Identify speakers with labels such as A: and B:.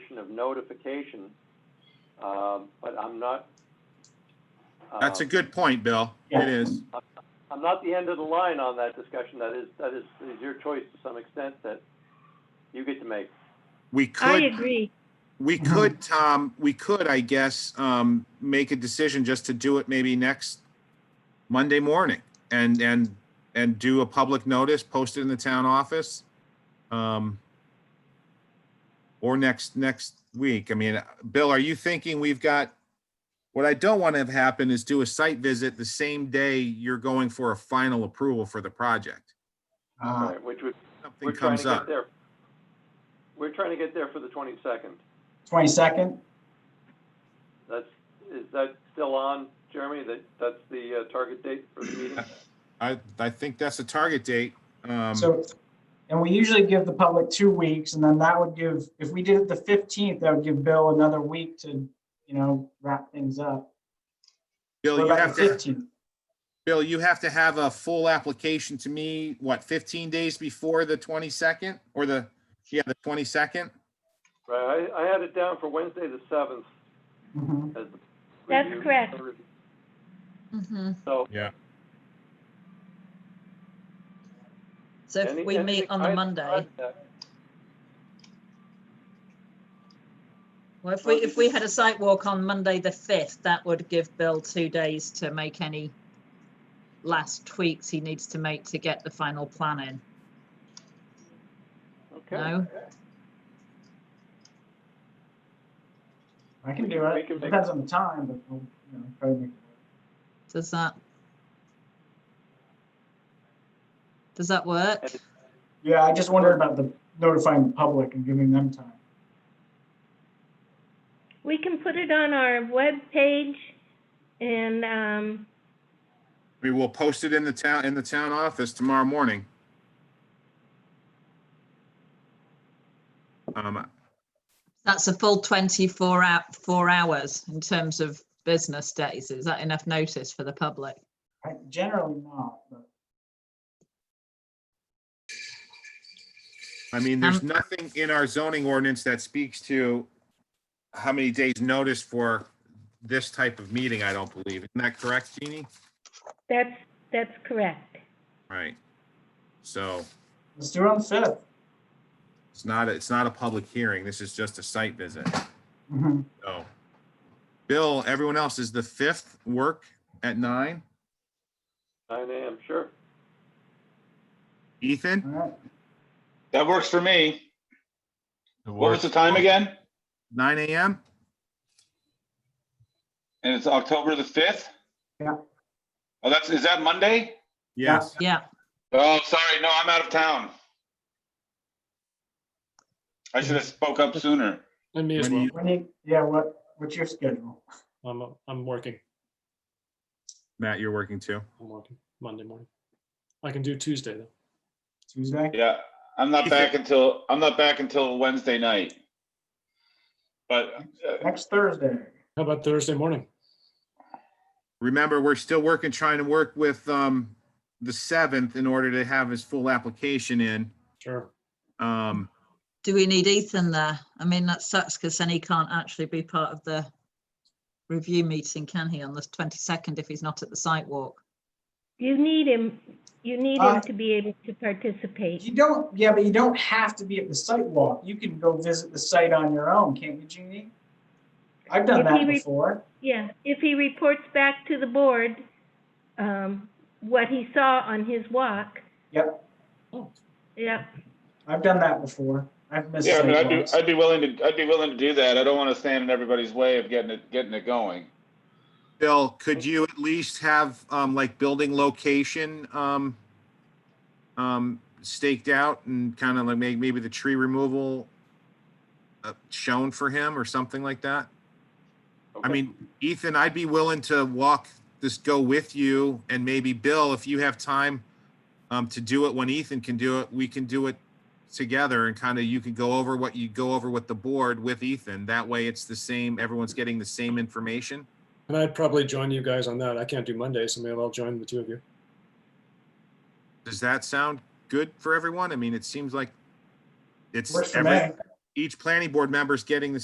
A: notion of notification, um, but I'm not.
B: That's a
A: um,
B: good point, Bill.
C: Yeah.
B: It is.
A: I'm not the end of the line on that discussion. That is, that is, is your choice to some extent that you get to make.
B: We
D: I
B: could,
D: agree.
B: we
C: Mhm.
B: could, Tom, we could, I guess, um, make a decision just to do it maybe next Monday morning and, and, and do a public notice, post it in the town office. Um, or next, next week. I mean, Bill, are you thinking we've got, what I don't want to have happen is do a site visit the same day you're going for a final approval for the project.
C: Uh,
A: Right, Which would,
B: Something
A: we're trying to
B: Uh-huh.
A: get
B: comes up.
A: there. We're trying to get there for the twenty-second.
C: twenty-second?
A: That's, is that still on, Jeremy? That, that's the uh, target date for the meeting?
B: I, I think that's the target date. Um,
C: So, and we usually give the public two weeks, and then that would give, if we did it the fifteenth, that would give Bill another week to, you know, wrap things up.
B: Bill,
C: What
B: you
C: about
B: have
C: the
B: to,
C: 15th?
B: Bill, you have to have a full application to me, what, 15 days before the 22nd or the, yeah, the 22nd?
A: Right, I, I had it down for Wednesday, the seventh
C: Mhm.
A: as the.
D: That's
A: review.
D: correct.
E: Mhm.
A: So,
E: So
A: Any-
E: if we meet
A: anything
E: on the
A: I-
E: Monday,
A: I-
E: well, if we,
A: Well,
E: if we had a site walk on Monday, the fifth, that would give Bill two days to make any last tweaks he needs to make to get the final plan in,
A: Okay,
E: no?
C: I can
A: We
C: do
A: can- we
C: it.
A: can make-
C: Depends on the time, but, we'll, you know, probably make it
E: Does that? Does that work?
A: Yes.
C: work. Yeah, I just wondered about the notifying the public and giving them time.
D: We can put it on our webpage and, um,
B: We will post it in the town, in the town office tomorrow morning. Um,
E: That's a full twenty-four hour, four hours in terms of business days. Is that enough notice for the public?
C: I generally not, but
B: I mean, there's
E: Um,
B: nothing in our zoning ordinance that speaks to how many days notice for this type of meeting, I don't believe. Isn't that correct, Jeannie?
D: that's, that's correct.
B: Right. So.
C: let's do it on the fifth.
B: It's not, it's not a public hearing. This is just a site visit.
C: Mhm.
B: So, Bill, everyone else, is the fifth work at nine?
A: nine AM, sure.
B: Ethan?
C: All right.
F: That works for me. What was the time again?
B: Nine AM?
F: And it's October the fifth?
C: Yeah.
F: Oh, that's, is that Monday?
B: Yes.
E: Yeah,
F: Oh, sorry, no, I'm out of town. I should have spoke up sooner.
G: And me as
B: When
G: well.
B: you-
C: When you, yeah, what, what's your schedule?
G: I'm, uh, I'm working.
B: Matt, you're working too.
G: I'm working Monday morning. I can do Tuesday though.
C: Tuesday?
F: Yeah, I'm not back until, I'm not back until Wednesday night. But uh,
C: Next Thursday?
G: How about Thursday morning?
B: Remember, we're still working, trying to work with, um, the seventh in order to have his full application in.
G: Sure.
B: Um,
E: do we need Ethan there? I mean, that sucks because then he can't actually be part of the review meeting, can he, on the twenty-second if he's not at the site walk?
D: You need him, you need
C: Uh,
D: him to be able to participate.
C: You don't, yeah, but you don't have to be at the site walk. You can go visit the site on your own, can't you, Jeannie? I've done
D: If
C: that
D: you re-
C: before.
D: Yeah, if he reports back to the board, um, what he saw on his walk,
C: Yep,
G: Oh,
D: yeah,
C: I've done that before. I've missed
F: yeah, I mean, I'd
C: site
F: be,
C: walks.
F: I'd be willing to, I'd be willing to do that. I don't want to stand in everybody's way of getting it, getting it going.
B: Bill, could you at least have, um, like building location, um, um, staked out and kind of like may- maybe the tree removal uh, shown for him or something like that? I
A: Okay.
B: mean, Ethan, I'd be willing to walk this, go with you and maybe Bill, if you have time um, to do it when Ethan can do it, we can do it together and kind of you can go over what you go over with the board with Ethan. That way it's the same, everyone's getting the same information.
G: and I'd probably join you guys on that. I can't do Monday, so maybe I'll join the two of you.
B: Does that sound good for everyone? I mean, it seems like it's
C: Works for
B: every,
C: me.
B: each planning board member's getting the